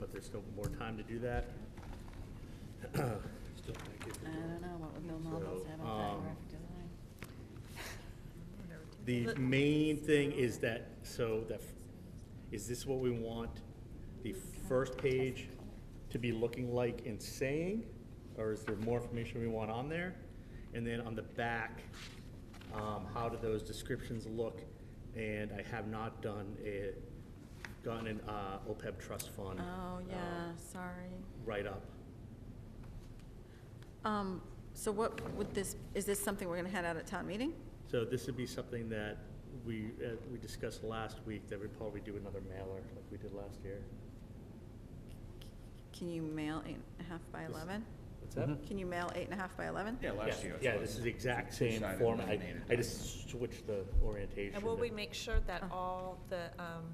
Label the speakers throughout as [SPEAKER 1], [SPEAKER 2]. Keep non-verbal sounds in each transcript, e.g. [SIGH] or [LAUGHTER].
[SPEAKER 1] Uh, there's still more time to do that.
[SPEAKER 2] Still think it
[SPEAKER 3] I don't know, what would Bill Maldo
[SPEAKER 1] So,
[SPEAKER 3] say about that
[SPEAKER 1] um,
[SPEAKER 3] graphic design?
[SPEAKER 1] The main thing is that, so that, is this what we want the first page to be looking like and saying? Or is there more information we want on there? And then on the back, um, how do those descriptions look? And I have not done a, gotten an, uh, OPEB trust fund.
[SPEAKER 3] Oh,
[SPEAKER 1] uh,
[SPEAKER 4] um,
[SPEAKER 3] yeah, sorry.
[SPEAKER 1] Write-up.
[SPEAKER 3] Um, so what would this, is this something we're gonna head out at town meeting?
[SPEAKER 1] So this would be something that we, uh, we discussed last week, that we'd probably do another mailer like we did last year.
[SPEAKER 3] Can you mail eight and a half by
[SPEAKER 1] This-
[SPEAKER 3] eleven?
[SPEAKER 1] What's that?
[SPEAKER 3] Can you mail eight and a half by eleven?
[SPEAKER 4] Yeah, Mm-hmm. last
[SPEAKER 1] Yeah,
[SPEAKER 4] year. it's
[SPEAKER 1] Yeah,
[SPEAKER 4] what-
[SPEAKER 1] this is the exact
[SPEAKER 4] two-sided
[SPEAKER 1] same format. I,
[SPEAKER 4] laminated
[SPEAKER 1] I
[SPEAKER 4] document.
[SPEAKER 1] just switched the orientation.
[SPEAKER 5] And will we
[SPEAKER 1] of-
[SPEAKER 5] make sure that
[SPEAKER 3] Oh.
[SPEAKER 5] all the um,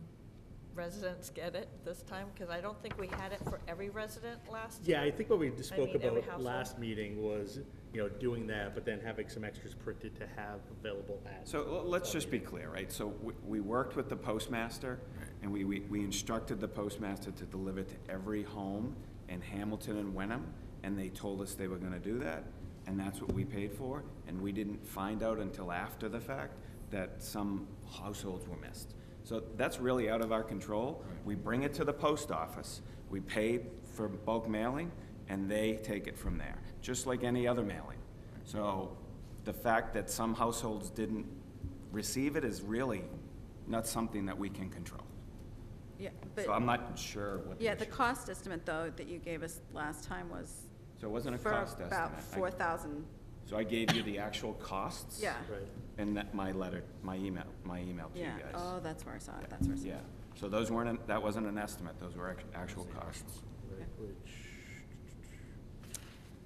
[SPEAKER 5] residents get it this time? Because I don't think we had it for every resident last year.
[SPEAKER 1] Yeah, I think what we just
[SPEAKER 5] I
[SPEAKER 1] spoke
[SPEAKER 5] mean, every
[SPEAKER 1] about
[SPEAKER 5] household.
[SPEAKER 1] last meeting was, you know, doing that, but then having some extras printed to have available at.
[SPEAKER 4] So l- let's just be clear, right? So we- we worked with the postmaster, and we- we we instructed the postmaster to deliver to every home in Hamilton and Wenham, and they told us they were going to do that, and that's what we paid for, and we didn't find out until after the fact that some households were missed. So that's really out of our control. We bring it to the post office, we pay for bulk mailing, and they take it from there, just like any other mailing. So the fact that some households didn't receive it is really not something that we can control.
[SPEAKER 3] Yeah,
[SPEAKER 4] So I'm
[SPEAKER 3] but,
[SPEAKER 4] not sure what the
[SPEAKER 3] yeah, the
[SPEAKER 4] issue.
[SPEAKER 3] cost estimate though that you gave us last time was
[SPEAKER 4] So it wasn't a
[SPEAKER 3] for
[SPEAKER 4] cost estimate.
[SPEAKER 3] about
[SPEAKER 4] I-
[SPEAKER 3] four thousand,
[SPEAKER 4] So I gave you the actual costs.
[SPEAKER 3] yeah,
[SPEAKER 1] Right.
[SPEAKER 4] And that, my letter, my email, my email to you
[SPEAKER 3] yeah.
[SPEAKER 4] guys.
[SPEAKER 3] Oh, that's where I saw it, that's where I saw it.
[SPEAKER 4] Yeah, so those weren't, an- that wasn't an estimate, those were act- actual costs.
[SPEAKER 1] Right,
[SPEAKER 3] Okay.
[SPEAKER 1] Which,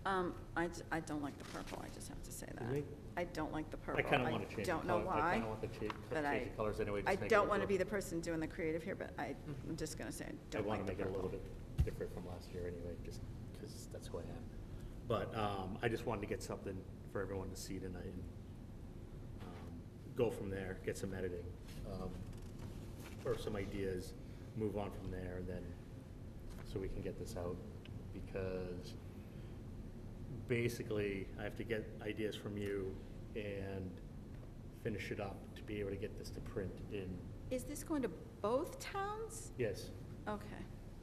[SPEAKER 3] Um, I, j- I don't like the purple, I just have to say that.
[SPEAKER 1] Really?
[SPEAKER 3] I don't like the purple.
[SPEAKER 1] I kinda wanna change. the
[SPEAKER 3] don't know
[SPEAKER 1] color- I
[SPEAKER 3] why,
[SPEAKER 1] kinda want to change,
[SPEAKER 3] but I.
[SPEAKER 1] change the colors anyway. just
[SPEAKER 3] I
[SPEAKER 1] make it
[SPEAKER 3] don't
[SPEAKER 1] look
[SPEAKER 3] wanna
[SPEAKER 1] a
[SPEAKER 3] be the
[SPEAKER 1] little-
[SPEAKER 3] person doing the creative here, but I, I'm just gonna say, I don't
[SPEAKER 1] I
[SPEAKER 3] like
[SPEAKER 1] want to make
[SPEAKER 3] the
[SPEAKER 1] it a
[SPEAKER 3] purple.
[SPEAKER 1] little bit different from last year anyway, just because that's who I am. But um, I just wanted to get something for everyone to see tonight and um, go from there, get some editing, um, or some ideas, move on from there, and then, so we can get this out. Because basically, I have to get ideas from you and finish it up to be able to get this to print in,
[SPEAKER 3] Is this going to both towns?
[SPEAKER 1] yes.
[SPEAKER 3] Okay,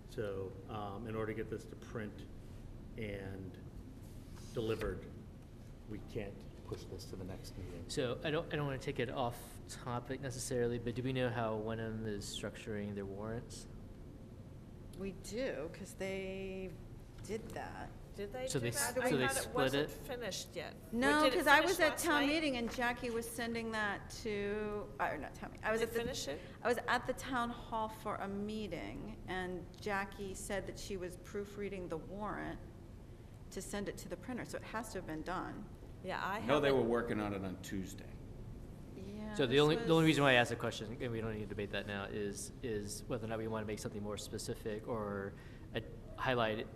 [SPEAKER 1] So, um, in order to get this to print and delivered, we can't push this to the next meeting.
[SPEAKER 6] So I don't, I don't want to take it off topic necessarily, but do we know how Wenham is structuring their warrants?
[SPEAKER 3] we do, cause they did that.
[SPEAKER 5] Did they
[SPEAKER 6] So
[SPEAKER 5] do
[SPEAKER 6] they
[SPEAKER 5] that?
[SPEAKER 6] s-
[SPEAKER 5] I
[SPEAKER 3] so they
[SPEAKER 5] thought it
[SPEAKER 6] split
[SPEAKER 5] wasn't
[SPEAKER 6] it?
[SPEAKER 5] finished yet. Or
[SPEAKER 3] No,
[SPEAKER 5] did it
[SPEAKER 3] cause I
[SPEAKER 5] finish
[SPEAKER 3] was at
[SPEAKER 5] last
[SPEAKER 3] town
[SPEAKER 5] night?
[SPEAKER 3] meeting and Jackie was sending that to, uh, or not town meeting, I was
[SPEAKER 5] Did
[SPEAKER 3] at
[SPEAKER 5] it
[SPEAKER 3] the.
[SPEAKER 5] finish it?
[SPEAKER 3] I was at the town hall for a meeting, and Jackie said that she was proofreading the warrant to send it to the printer, so it has to have been done.
[SPEAKER 5] Yeah, I
[SPEAKER 4] No, they were
[SPEAKER 5] haven't,
[SPEAKER 4] working on it on Tuesday.
[SPEAKER 3] Yeah.
[SPEAKER 6] So the
[SPEAKER 3] this
[SPEAKER 6] only, the only
[SPEAKER 3] was-
[SPEAKER 6] reason why I asked the question, and we don't need to debate that now, is, is whether or not we want to make something more specific or uh, highlight, it.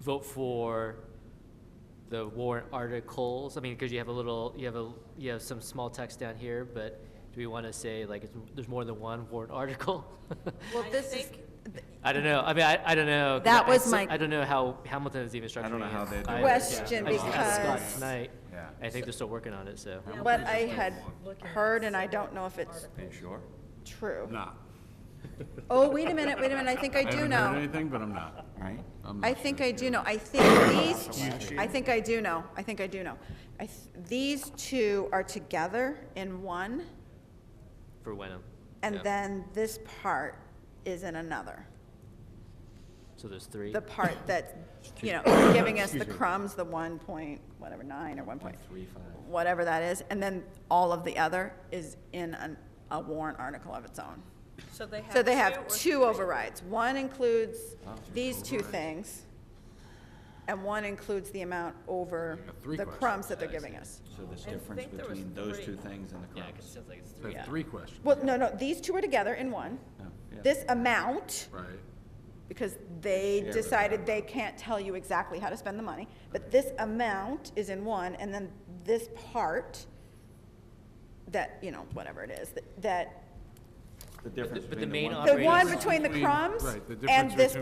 [SPEAKER 6] vote for the warrant articles. I mean, because you have a little, you have a, you have some small text down here, but do we want to say like, it's, there's more than one warrant article?
[SPEAKER 3] [LAUGHS] Well,
[SPEAKER 5] I
[SPEAKER 3] this is,
[SPEAKER 5] think-
[SPEAKER 3] th-
[SPEAKER 6] I don't know. I mean, I, I don't know. 'cause
[SPEAKER 3] That
[SPEAKER 6] I-
[SPEAKER 3] was
[SPEAKER 6] I-
[SPEAKER 3] my-
[SPEAKER 6] I don't know how Hamilton is even structuring.
[SPEAKER 4] I don't know how
[SPEAKER 6] it
[SPEAKER 4] they do
[SPEAKER 6] either.
[SPEAKER 4] it.
[SPEAKER 3] Question,
[SPEAKER 6] I just asked Scott
[SPEAKER 3] because-
[SPEAKER 6] tonight.
[SPEAKER 4] Yeah.
[SPEAKER 6] I think they're still working on it, so.
[SPEAKER 3] what I had heard, and I don't know if it's
[SPEAKER 4] Are you sure?
[SPEAKER 3] true.
[SPEAKER 7] Not.
[SPEAKER 3] Oh, wait a minute, wait a minute, I think I do
[SPEAKER 7] haven't heard
[SPEAKER 3] know.
[SPEAKER 7] anything, but I'm not.
[SPEAKER 4] Right?
[SPEAKER 7] I'm
[SPEAKER 3] I
[SPEAKER 7] not
[SPEAKER 3] think
[SPEAKER 7] sure.
[SPEAKER 3] I do know, I think these, I think I do know, I think I do know. I, th- these two are together in one,
[SPEAKER 6] For Wenham.
[SPEAKER 3] and
[SPEAKER 6] Yeah.
[SPEAKER 3] then this part is in another.
[SPEAKER 6] So there's three.
[SPEAKER 3] the part that, you know, is giving us the crumbs, the one point, whatever, nine or one point, whatever that is, and then all of the other is in an, a warrant article of its own.
[SPEAKER 5] So they have.
[SPEAKER 3] So they
[SPEAKER 5] or
[SPEAKER 3] have two
[SPEAKER 5] three?
[SPEAKER 3] overrides. One includes
[SPEAKER 4] Wow, two
[SPEAKER 3] these two
[SPEAKER 4] overrides.
[SPEAKER 3] things, and one includes the amount over
[SPEAKER 7] You got three
[SPEAKER 3] the
[SPEAKER 7] questions.
[SPEAKER 3] crumbs that they're giving us.
[SPEAKER 4] So there's
[SPEAKER 5] I
[SPEAKER 4] difference
[SPEAKER 5] think there was
[SPEAKER 4] between those
[SPEAKER 5] three.
[SPEAKER 4] two things and the
[SPEAKER 6] Yeah, 'cause it
[SPEAKER 4] cross.
[SPEAKER 6] sounds like it's
[SPEAKER 7] So I
[SPEAKER 6] three.
[SPEAKER 7] have three questions,
[SPEAKER 3] Well, no, no, these two are together in one.
[SPEAKER 4] Oh, yeah.
[SPEAKER 3] This amount,
[SPEAKER 7] right?
[SPEAKER 3] because they
[SPEAKER 4] Share with
[SPEAKER 3] decided
[SPEAKER 4] them.
[SPEAKER 3] they can't tell you exactly how to spend the money, but this amount is in one, and then this part that, you know, whatever it is, that- that
[SPEAKER 8] the difference
[SPEAKER 9] but the
[SPEAKER 8] between the
[SPEAKER 9] main
[SPEAKER 8] one.
[SPEAKER 9] op-
[SPEAKER 7] The
[SPEAKER 9] Outrageous.
[SPEAKER 7] one between the crumbs
[SPEAKER 3] Right, the
[SPEAKER 7] and
[SPEAKER 3] difference
[SPEAKER 7] this